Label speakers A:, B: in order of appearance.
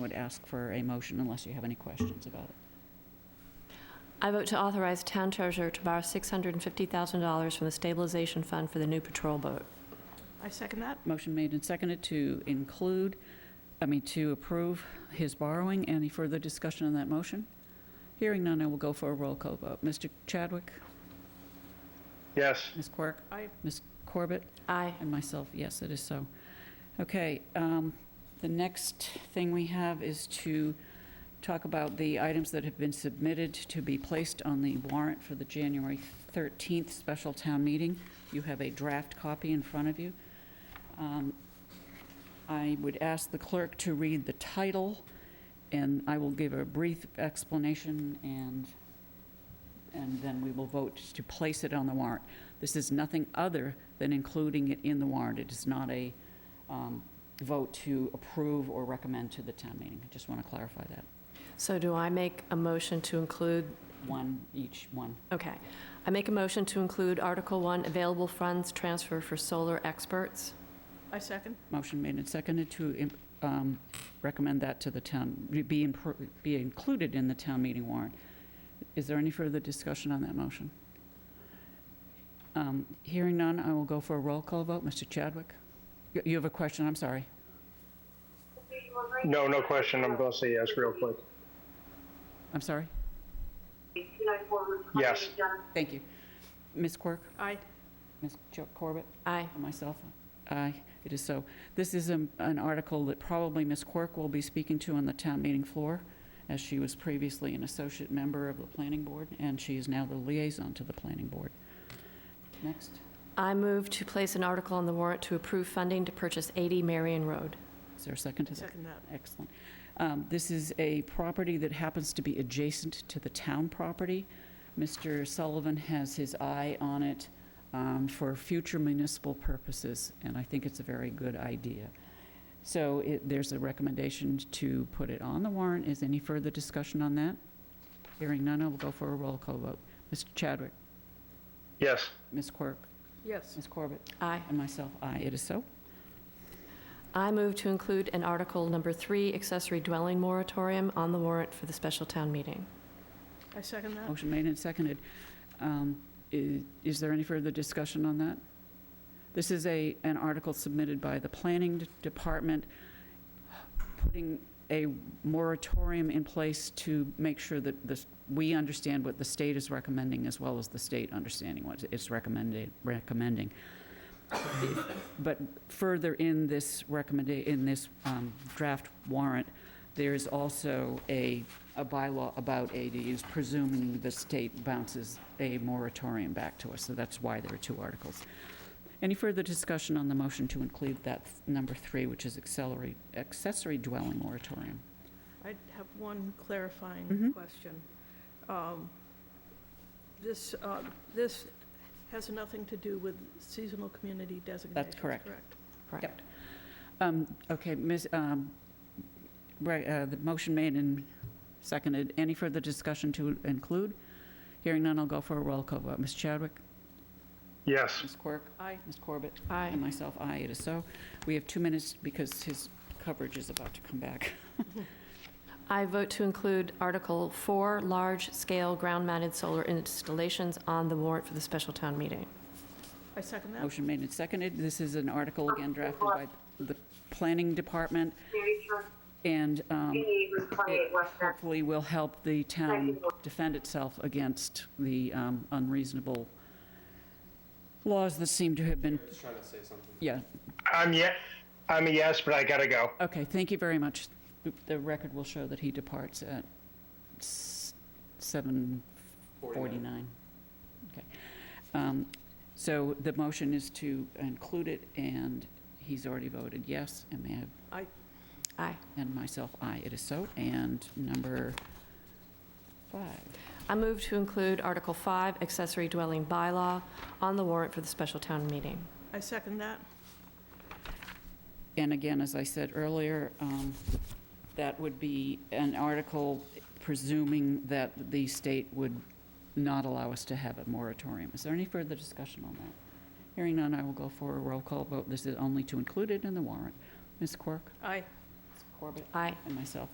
A: would ask for a motion unless you have any questions about it.
B: I vote to authorize town treasurer to borrow $650,000 from the stabilization fund for the new patrol boat.
C: I second that.
A: Motion made and seconded to include, I mean, to approve his borrowing. Any further discussion on that motion? Hearing none, I will go for a roll call vote. Mr. Chadwick?
D: Yes.
A: Ms. Quirk?
C: Aye.
A: Ms. Corbett?
B: Aye.
A: And myself, yes, it is so. Okay, um, the next thing we have is to talk about the items that have been submitted to be placed on the warrant for the January 13th special town meeting. You have a draft copy in front of you. Um, I would ask the clerk to read the title, and I will give a brief explanation, and, and then we will vote to place it on the warrant. This is nothing other than including it in the warrant. It is not a um, vote to approve or recommend to the town meeting. I just want to clarify that.
B: So do I make a motion to include,
A: One, each one.
B: okay. I make a motion to include Article 1, available funds transfer for solar experts.
C: I second.
A: Motion made and seconded to um, recommend that to the town, be, in- be included in the town meeting warrant. Is there any further discussion on that motion? Um, Hearing none, I will go for a roll call vote. Mr. Chadwick? You- You have a question, I'm sorry.
D: No, no question. I'm going to say yes real quick.
A: I'm sorry?
D: Yes.
A: Thank you. Ms. Quirk?
C: Aye.
A: Ms. Corbett?
B: Aye.
A: And myself, aye, it is so. This is an an article that probably Ms. Quirk will be speaking to on the town meeting floor, as she was previously an associate member of the planning board, and she is now the liaison to the planning board. Next,
B: I move to place an article on the warrant to approve funding to purchase 80 Marion Road.
A: is there a second
C: I
A: to that?
C: second that.
A: Excellent. Um, This is a property that happens to be adjacent to the town property. Mr. Sullivan has his eye on it um, for future municipal purposes, and I think it's a very good idea. So it- there's a recommendation to put it on the warrant. Is any further discussion on that? Hearing none, I will go for a roll call vote. Mr. Chadwick?
D: Yes.
A: Ms. Quirk?
C: Yes.
A: Ms. Corbett?
B: Aye.
A: And myself, aye. It is so.
B: I move to include an Article Number 3, accessory dwelling moratorium on the warrant for the special town meeting.
C: I second that.
A: Motion made and seconded. Um, i- Is there any further discussion on that? This is a, an article submitted by the Planning D- Department, putting a moratorium in place to make sure that this, we understand what the state is recommending, as well as the state understanding what it's recommended, recommending. But further in this recommend, in this um, draft warrant, there is also a, a bylaw about ADUs, presuming the state bounces a moratorium back to us, so that's why there are two articles. Any further discussion on the motion to include that th- number three, which is accelerate, accessory dwelling moratorium?
C: I have one clarifying
A: Mhm.
C: question. Um, This, uh, this has nothing to do with seasonal community designation.
A: correct. Yep. Um, Okay, Ms., um, right, uh, the motion made and seconded. Any further discussion to include? Hearing none, I'll go for a roll call vote. Ms. Chadwick?
D: Yes.
A: Ms. Quirk?
C: Aye.
A: Ms. Corbett?
B: Aye.
A: And myself, aye, it is so. We have two minutes because his coverage is about to come back.
B: I vote to include Article 4, large-scale ground-mounted solar installations on the warrant for the special town meeting.
C: I second that.
A: Motion made and seconded. This is an article, again, drafted by the Planning Department, and um, it hopefully will help the town defend itself against the um, unreasonable laws that seem to have been... trying to say something. Yeah,
D: I'm yet. I'm a yes, but I gotta go.
A: Okay, thank you very much. The- The record will show that he departs at s- 7:49. Okay. Um, So the motion is to include it, and he's already voted yes, and may I,
C: I,
B: Aye.
A: and myself, aye, it is so. And number five,
B: I move to include Article 5, accessory dwelling bylaw, on the warrant for the special town meeting.
C: I second that.
A: And again, as I said earlier, um, that would be an article presuming that the state would not allow us to have a moratorium. Is there any further discussion on that? Hearing none, I will go for a roll call vote. This is only to include it in the warrant. Ms. Quirk?
C: Aye.
A: Ms. Corbett?
B: Aye.
A: And myself,